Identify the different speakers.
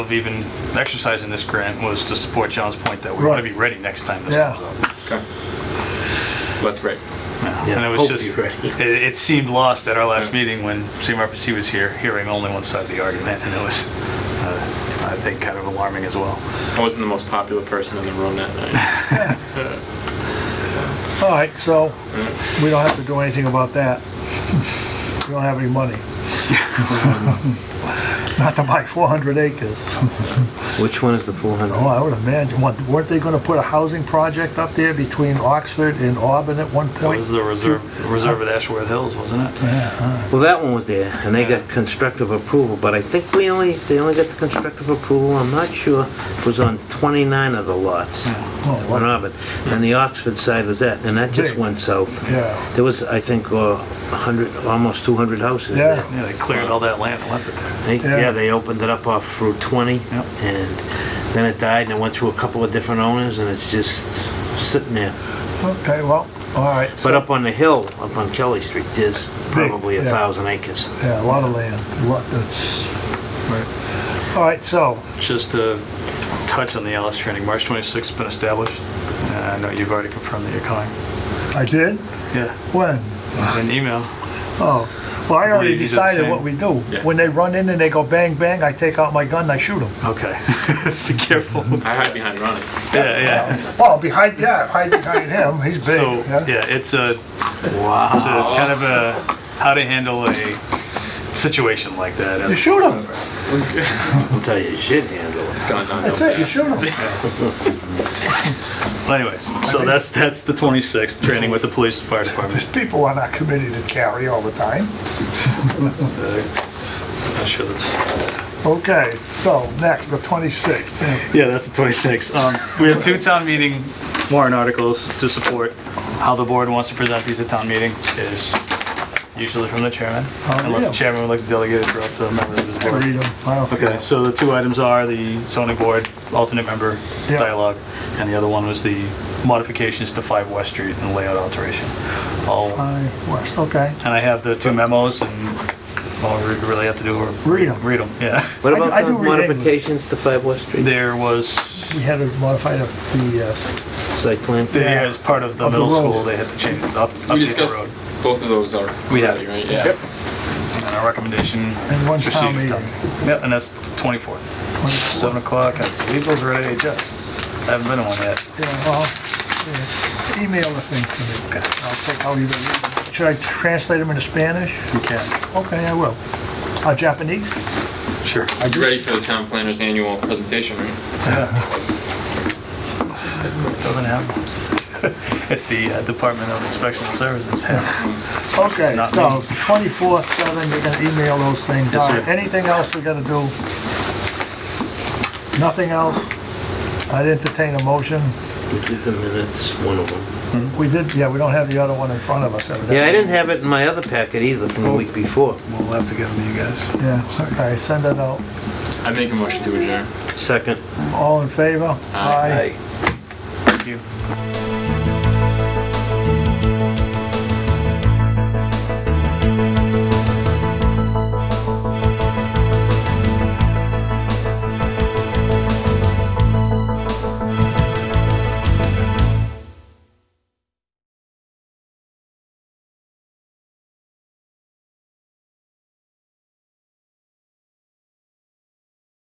Speaker 1: of even exercising this grant was to support John's point that we want to be ready next time this
Speaker 2: Yeah.
Speaker 1: comes up.
Speaker 3: Okay. That's great.
Speaker 1: Yeah. And it was
Speaker 4: hope
Speaker 1: just,
Speaker 4: you're ready.
Speaker 1: it it seemed lost at our last
Speaker 3: Yeah.
Speaker 1: meeting when CMRPC was here, hearing only one side of the argument, and it was, uh, I think, kind of alarming as well.
Speaker 3: I wasn't the most popular person in the room that night.
Speaker 2: All right, so we don't have to do anything about that. We don't have any money. Not to buy 400 acres.
Speaker 4: Which one is the
Speaker 2: Oh,
Speaker 4: 400?
Speaker 2: I would imagine, what- weren't they gonna put a housing project up there between Oxford and Auburn at one
Speaker 1: That
Speaker 2: point?
Speaker 1: was the reserve, reserve at Ashworth Hills, wasn't it?
Speaker 4: Well, that one was there, and they got constructive approval, but I think we only, they only got the constructive approval, I'm not sure, it was on 29 of the lots.
Speaker 2: Oh,
Speaker 4: One
Speaker 2: what-
Speaker 4: of it, and the Oxford side was that, and that just
Speaker 2: Big.
Speaker 4: went south.
Speaker 2: Yeah,
Speaker 4: There was, I think, uh, 100, almost 200 houses
Speaker 2: Yeah.
Speaker 4: there.
Speaker 1: Yeah, they cleared all that land and left it there.
Speaker 4: They-
Speaker 2: Yeah.
Speaker 4: Yeah, they opened it up off Route 20,
Speaker 1: Yep.
Speaker 4: and then it died, and it went through a couple of different owners, and it's just sitting there.
Speaker 2: okay, well, all right.
Speaker 4: But
Speaker 2: so-
Speaker 4: up on the hill, up on Kelly Street, there's probably a
Speaker 2: yeah.
Speaker 4: thousand acres.
Speaker 2: Yeah, a lot of land, a lot, that's, all right, so,
Speaker 1: Just to touch on the Alice training, March 26th has been established, and I know you've already confirmed that you're coming.
Speaker 2: I did,
Speaker 1: Yeah,
Speaker 2: when?
Speaker 1: an email.
Speaker 2: Oh, well, I
Speaker 1: Well,
Speaker 2: already
Speaker 1: you did the
Speaker 2: decided
Speaker 1: same.
Speaker 2: what we do.
Speaker 3: Yeah.
Speaker 2: When they run in and they go bang, bang, I take out my gun and I shoot them.
Speaker 1: Okay, just be careful.
Speaker 3: I hide behind Ronnie.
Speaker 1: Yeah, yeah.
Speaker 2: Well, Oh, behind, yeah, hide behind him, he's big,
Speaker 1: So,
Speaker 2: yeah.
Speaker 1: yeah, it's a, it's a
Speaker 4: Wow.
Speaker 1: kind of a, how to handle a situation like
Speaker 2: You
Speaker 1: that.
Speaker 2: shoot him,
Speaker 4: I'll tell you, you should handle it.
Speaker 3: It's gone down.
Speaker 2: that's it, you shoot him.
Speaker 1: Anyways, so that's, that's the 26th, training with the police and fire department.
Speaker 2: People on our committee that carry all the time.
Speaker 1: Uh, I'm sure that's,
Speaker 2: Okay, so next, the 26th. yeah.
Speaker 1: yeah, that's the 26th. Um, We have two town meeting warrant articles to support. How the board wants to present these at town meeting is usually from the chairman,
Speaker 2: Oh,
Speaker 1: unless the
Speaker 2: yeah.
Speaker 1: chairman would like to delegate it throughout the members of the
Speaker 2: I
Speaker 1: board.
Speaker 2: read them, I don't
Speaker 1: Okay,
Speaker 2: care.
Speaker 1: so the two items are the zoning board alternate member
Speaker 2: Yeah.
Speaker 1: dialogue, and the other one was the modifications to 5 West Street and layout alteration. All, and
Speaker 2: I, West, okay.
Speaker 1: I have the two memos, and all we really have to do are...
Speaker 2: Read 'em.
Speaker 1: Read them, yeah.
Speaker 4: What
Speaker 2: I do-
Speaker 4: about
Speaker 2: I
Speaker 4: the
Speaker 2: do read English.
Speaker 4: modifications to 5 West Street
Speaker 1: There was,
Speaker 2: We had to modify the, the, uh,
Speaker 4: site plan?
Speaker 1: there as part of the
Speaker 2: Of the
Speaker 1: middle
Speaker 2: road.
Speaker 1: school, they had to change, up
Speaker 3: We
Speaker 1: update the
Speaker 3: discussed
Speaker 1: road.
Speaker 3: both of those are.
Speaker 1: We have.
Speaker 3: already, Right, yeah.
Speaker 1: And our recommendation...
Speaker 2: And one town
Speaker 1: proceed.
Speaker 2: meeting.
Speaker 1: Yep, and that's 24th, 7 o'clock, I believe those are at AHS. I haven't been to one yet.
Speaker 2: yeah, well, yeah, email the things to me.
Speaker 1: Okay.
Speaker 2: I'll take, I'll even, should I translate them into Spanish?
Speaker 1: You can,
Speaker 2: Okay, I will. Uh, Japanese?
Speaker 1: sure.
Speaker 2: I
Speaker 3: You ready for the town planner's annual presentation, right?
Speaker 1: Doesn't have one. It's the uh, Department of Inspection Services. Yeah.
Speaker 2: Okay,
Speaker 1: It's not
Speaker 2: so
Speaker 1: me.
Speaker 2: 24th, 7, you're gonna email those things.
Speaker 1: Yes,
Speaker 2: All
Speaker 1: sir.
Speaker 2: right, Anything else we gotta do? Nothing else? I'd entertain a motion.
Speaker 4: We did the minutes, one of them.
Speaker 2: We did, yeah, we don't have the other one in front of us evidently.
Speaker 4: Yeah, I didn't have it in my other packet either from the week before.
Speaker 1: We'll have to give them to you guys.
Speaker 2: Yeah, okay, send it out.
Speaker 3: I make a motion to adjourn.
Speaker 4: Second.
Speaker 2: All in favor?
Speaker 3: Aye.
Speaker 1: Thank you.